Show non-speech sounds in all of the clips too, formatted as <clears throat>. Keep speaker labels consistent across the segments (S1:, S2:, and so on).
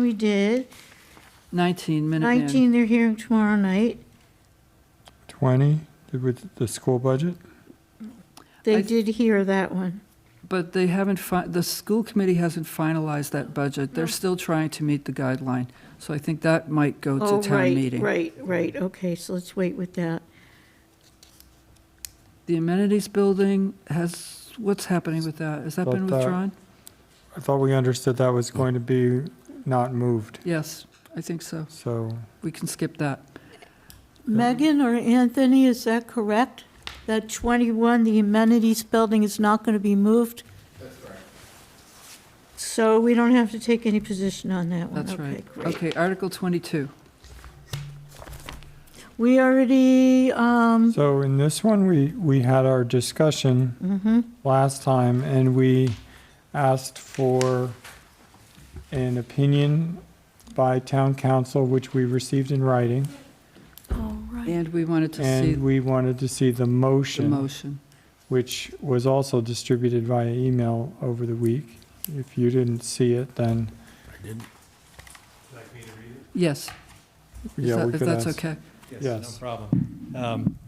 S1: we did.
S2: 19 minute man.
S1: 19, they're hearing tomorrow night.
S3: 20, with the school budget?
S1: They
S2: I-
S1: did hear that one.
S2: But they haven't, fi- the school committee hasn't finalized that budget. They're still trying to meet the guideline. So I think that might go
S1: Oh,
S2: to town
S1: right,
S2: meeting.
S1: Right, right, okay, so let's wait with that.
S2: The amenities building has, what's happening with that? Has that been
S3: About that.
S2: withdrawn?
S3: I thought we understood that was going to be not moved,
S2: Yes, I think so.
S3: so
S2: We can skip that. Um,
S1: Megan or Anthony, is that correct? That 21, the amenities building is not going to be moved? That's right. So we don't have to take any position on that one?
S2: That's right.
S1: Okay, great.
S2: Okay, Article 22.
S1: We already, um,
S3: So in this one, we, we had our discussion
S1: mm-hmm.
S3: last time, and we asked for an opinion by town council, which we received in writing,
S1: oh, right.
S2: And we wanted to
S3: and
S2: see
S3: we wanted to see the
S2: the
S3: motion,
S2: motion.
S3: which was also distributed via email over the week. If you didn't see it, then,
S2: Yes, Is
S3: yeah,
S2: that-
S3: we
S2: if
S3: could
S2: that's
S3: ask.
S2: okay.
S3: Yes.
S4: No problem. Um,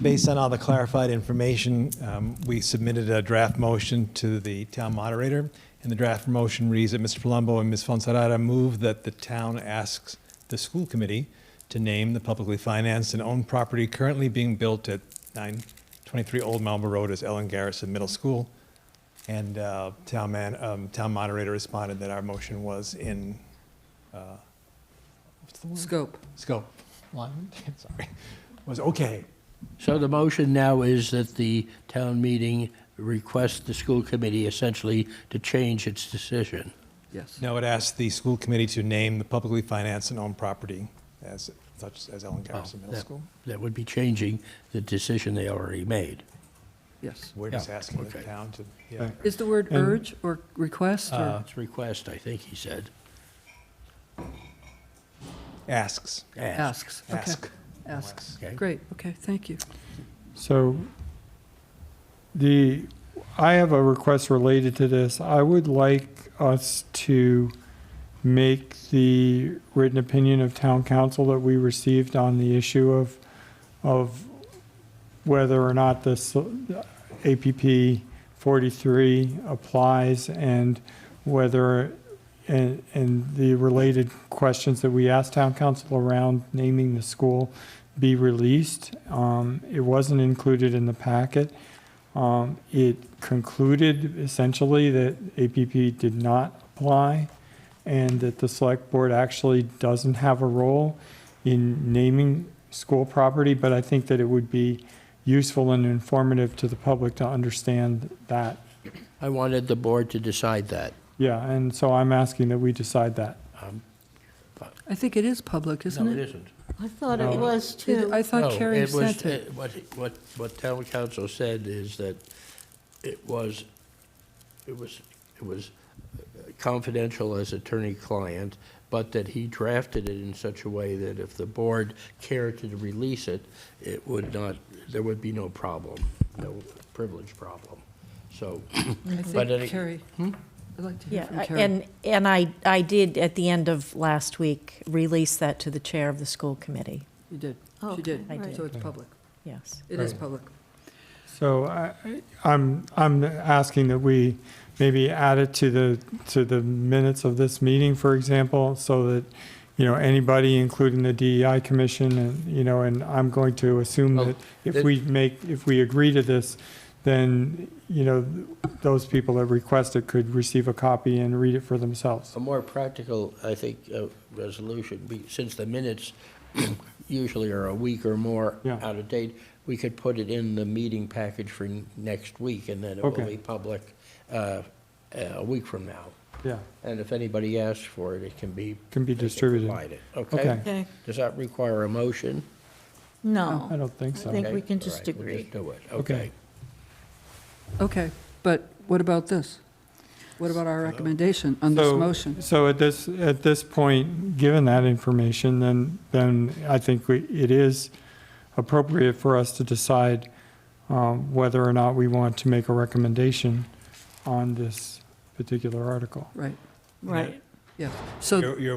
S4: Based on all the clarified information, um, we submitted a draft motion to the town moderator. And the draft motion reads that Mr. Palumbo and Ms. Fonserrada move that the town asks the school committee to name the publicly financed and owned property currently being built at 923 Old Malmo Road as Ellen Garrison Middle School. And uh, town man, um, town moderator responded that our motion was in uh,
S2: Scope.
S4: scope. <laughs> Alignment? Sorry. Was okay.
S5: So the motion now is that the town meeting request the school committee essentially to change its decision.
S2: Yes.
S4: No, it asked the school committee to name the publicly financed and owned property as such as Ellen Garrison Middle
S5: that-
S4: School.
S5: That would be changing the decision they already made.
S2: Yes.
S4: We're just
S5: Yeah,
S4: asking the
S5: okay.
S4: town to, yeah.
S2: Is the word
S3: And- Uh,
S2: urge or request or?
S5: Uh, It's request, I think he said.
S4: asks,
S2: Asks. Okay.
S4: ask.
S2: Asks.
S5: Okay.
S2: Great, okay, thank you.
S3: So the, I have a request related to this. I would like us to make the written opinion of town council that we received on the issue of, of whether or not this APP 43 applies and whether, and, and the related questions that we asked town council around naming the school be released. Um, It wasn't included in the packet. Um, It concluded essentially that APP did not apply and that the select board actually doesn't have a role in naming school property, but I think that it would be useful and informative to the public to understand that.
S5: I wanted the board to decide that.
S3: Yeah, and so I'm asking that we decide that.
S2: I think it is public, isn't
S5: No, it
S2: it?
S5: isn't.
S1: I thought it
S3: No.
S1: was
S2: Did-
S1: too.
S2: I thought
S5: No,
S2: Carrie
S5: it was-
S2: sent it.
S5: uh, What, what, what town council said is that it was, it was, it was confidential as attorney-client, but that he drafted it in such a way that if the board cared to release it, it would not, there would be no problem, no privilege problem. So,
S2: I
S5: But Hmm? any-
S2: think Carrie, I'd like to hear
S6: Yeah,
S2: from
S6: I-
S2: Carrie.
S6: and, and I, I did, at the end of last week, release that to the chair of the school committee,
S2: You did, she
S1: Okay,
S2: did.
S6: Oh, I did.
S2: So it's public.
S6: yes.
S2: It is public.
S3: So I, I'm, I'm asking that we maybe add it to the, to the minutes of this meeting, for example, so that, you know, anybody, including the DEI commission, and, you know, and I'm going to assume
S5: Well,
S3: that if
S5: that-
S3: we make, if we agree to this, then, you know, those people that request it could receive a copy and read it for themselves.
S5: A more practical, I think, uh, resolution, be- since the minutes <clears throat> usually are a week or more
S3: Yeah.
S5: out of date, we could put it in the meeting package for n- next week, and then it will
S3: Okay.
S5: be public uh, a week from now.
S3: Yeah,
S5: And if anybody asks for it, it can be.
S3: Can be
S5: they
S3: distributed.
S5: provide it,
S3: Okay.
S5: okay?
S1: Okay,
S5: Does that require a motion?
S3: I
S2: Oh.
S1: no.
S3: don't think
S1: I
S3: so.
S1: think-
S5: Okay,
S1: we can
S5: all
S1: just
S5: right, we'll
S1: agree.
S5: do it,
S3: Okay.
S5: okay.
S2: Okay, but what about this? What about our recommendation on this
S3: So-
S2: motion?
S3: So at this, at this point, given that information, then, then I think we, it is appropriate for us to decide um, whether or not we want to make a recommendation on this particular article.
S2: Right.
S1: Right.
S7: Yes. So
S2: You're you're